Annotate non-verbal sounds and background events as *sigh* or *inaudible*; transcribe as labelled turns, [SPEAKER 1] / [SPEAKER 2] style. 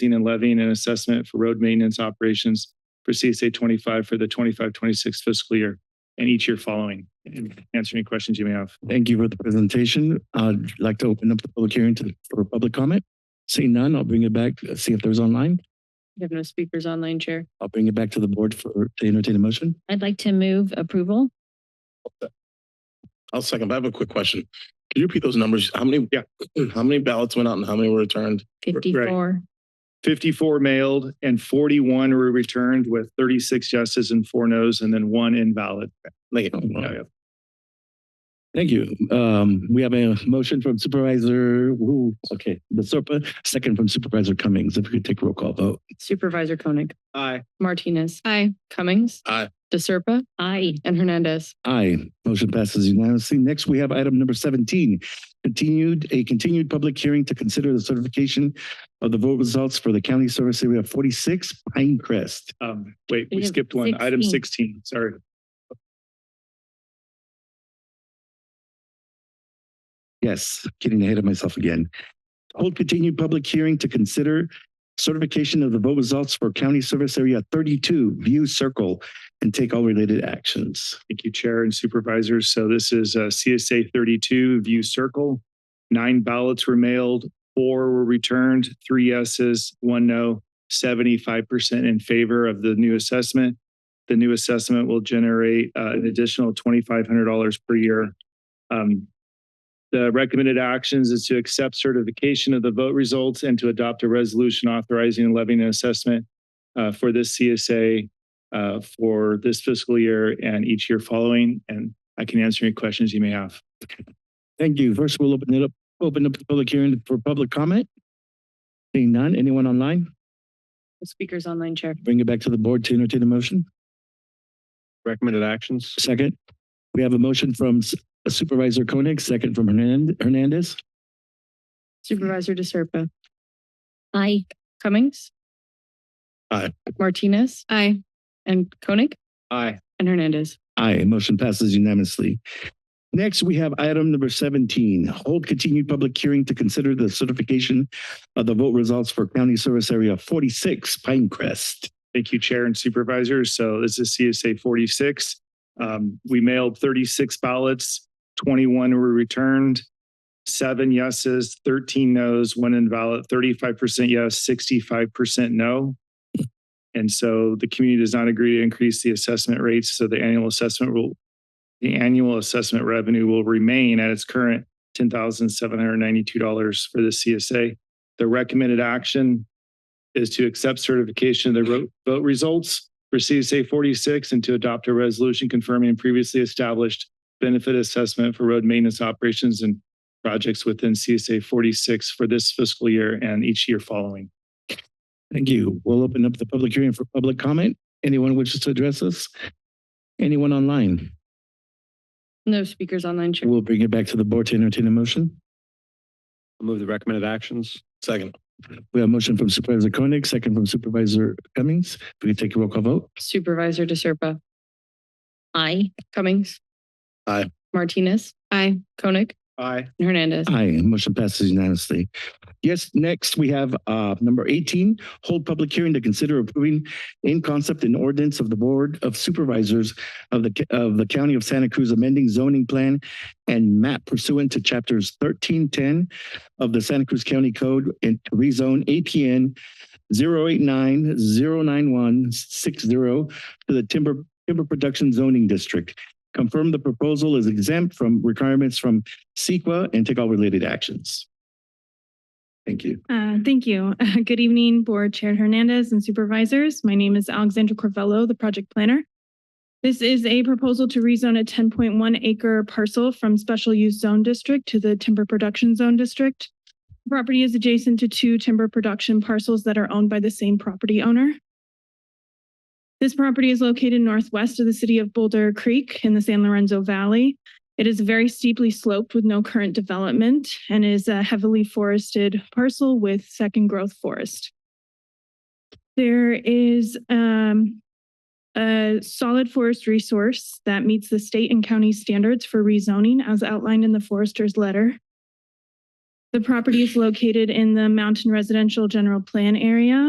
[SPEAKER 1] leasing and levying an assessment for road maintenance operations for CSA twenty-five for the 25-26 fiscal year and each year following. And Answer any questions you may have.
[SPEAKER 2] Thank you for the presentation. I'd like to open up the public hearing to, for public comment. Seeing none, I'll bring it back, see if there's online.
[SPEAKER 3] We have no speakers online, Chair.
[SPEAKER 2] I'll bring it back to the board for, to entertain a motion.
[SPEAKER 4] I'd like to move approval.
[SPEAKER 5] I'll second, but I have a quick question. Can you repeat those numbers? How many?
[SPEAKER 1] Yeah.
[SPEAKER 5] How many ballots went out and how many were returned?
[SPEAKER 4] Fifty-four.
[SPEAKER 1] Fifty-four mailed and forty-one were returned with thirty-six yeses and four nos and then one invalid.
[SPEAKER 5] Like,
[SPEAKER 2] Thank you. Um, we have a motion from Supervisor, woo, okay, the SERPA, second from Supervisor Cummings. If we could take roll call vote.
[SPEAKER 3] Supervisor Koenig.
[SPEAKER 1] Aye.
[SPEAKER 3] Martinez. Aye. Cummings.
[SPEAKER 5] Aye.
[SPEAKER 3] DeSerpa
[SPEAKER 4] Aye.
[SPEAKER 3] and Hernandez.
[SPEAKER 2] Aye, motion passes unanimously. Next, we have item number seventeen. Continued, a continued public hearing to consider the certification of the vote results for the county service area forty-six Pinecrest.
[SPEAKER 1] Um, wait, we
[SPEAKER 4] Item
[SPEAKER 1] skipped one. Item
[SPEAKER 4] 16.
[SPEAKER 1] sixteen, sorry.
[SPEAKER 2] Yes, getting ahead of myself again. Hold continued public hearing to consider certification of the vote results for County Service Area thirty-two View Circle and take all related actions.
[SPEAKER 1] Thank you, Chair and Supervisors. So this is uh, CSA thirty-two View Circle. Nine ballots were mailed, four were returned, three yeses, one no, seventy-five percent in favor of the new assessment. The new assessment will generate uh, an additional twenty-five hundred dollars per year. Um, The recommended actions is to accept certification of the vote results and to adopt a resolution authorizing and levying an assessment uh, for this CSA uh, for this fiscal year and each year following, and I can answer any questions you may have.
[SPEAKER 2] Thank you. First, we'll open it up, open up the public hearing for public comment. Seeing none, anyone online,
[SPEAKER 3] No Speakers online, Chair.
[SPEAKER 2] bring it back to the board to entertain a motion.
[SPEAKER 6] Recommended actions?
[SPEAKER 2] Second, we have a motion from Supervisor Koenig, second from Hernan- Hernandez.
[SPEAKER 3] Supervisor DeSerpa.
[SPEAKER 4] Aye.
[SPEAKER 3] Cummings.
[SPEAKER 5] Aye.
[SPEAKER 3] Martinez. Aye. And Koenig
[SPEAKER 6] Aye.
[SPEAKER 3] and Hernandez.
[SPEAKER 2] Aye, motion passes unanimously. Next, we have item number seventeen, hold continued public hearing to consider the certification of the vote results for County Service Area forty-six Pinecrest.
[SPEAKER 1] Thank you, Chair and Supervisors. So this is CSA forty-six. Um, we mailed thirty-six ballots, twenty-one were returned, seven yeses, thirteen nos, one invalid, thirty-five percent yes, sixty-five percent no. And so the community does not agree to increase the assessment rates, so the annual assessment will, the annual assessment revenue will remain at its current ten thousand seven hundred ninety-two dollars for the CSA. The recommended action is to accept certification of the ro- vote results for CSA forty-six and to adopt a resolution confirming previously established benefit assessment for road maintenance operations and projects within CSA forty-six for this fiscal year and each year following.
[SPEAKER 2] Thank you. We'll open up the public hearing for public comment. Anyone wishes to address us? Anyone online?
[SPEAKER 3] No speakers online, Chair.
[SPEAKER 2] We'll bring it back to the board to entertain a motion.
[SPEAKER 6] I'll Move the recommended actions?
[SPEAKER 5] second,
[SPEAKER 2] We have a motion from Supervisor Koenig, second from Supervisor Cummings. If we could take a roll call vote.
[SPEAKER 3] Supervisor DeSerpa.
[SPEAKER 4] Aye.
[SPEAKER 3] Cummings.
[SPEAKER 5] Aye.
[SPEAKER 3] Martinez. Aye. Koenig
[SPEAKER 1] Aye.
[SPEAKER 3] and Hernandez.
[SPEAKER 2] Aye, motion passes unanimously. Yes, next we have uh number eighteen, hold public hearing to consider approving in concept and ordinance of the Board of Supervisors of the of the County of Santa Cruz amending zoning plan and map pursuant to chapters thirteen ten of the Santa Cruz County Code and to rezone APN 089-091-60 to the timber timber production zoning district. Confirm the proposal is exempt from requirements from CEQA and take all related actions. Thank you.
[SPEAKER 7] Uh, Thank you. *laughs* Good evening, Board Chair Hernandez and Supervisors. My name is Alexandra Corvello, the project planner. This is a proposal to rezone a 10.1 acre parcel from Special Use Zone District to the Timber Production Zone District. The Property is adjacent to two timber production parcels that are owned by the same property owner. This property is located northwest of the city of Boulder Creek in the San Lorenzo Valley. It is very steeply sloped with no current development and is a heavily forested parcel with second growth forest. There is um, a solid forest resource that meets the state and county standards for rezoning as outlined in the forester's letter. The property is located in the Mountain Residential General Plan Area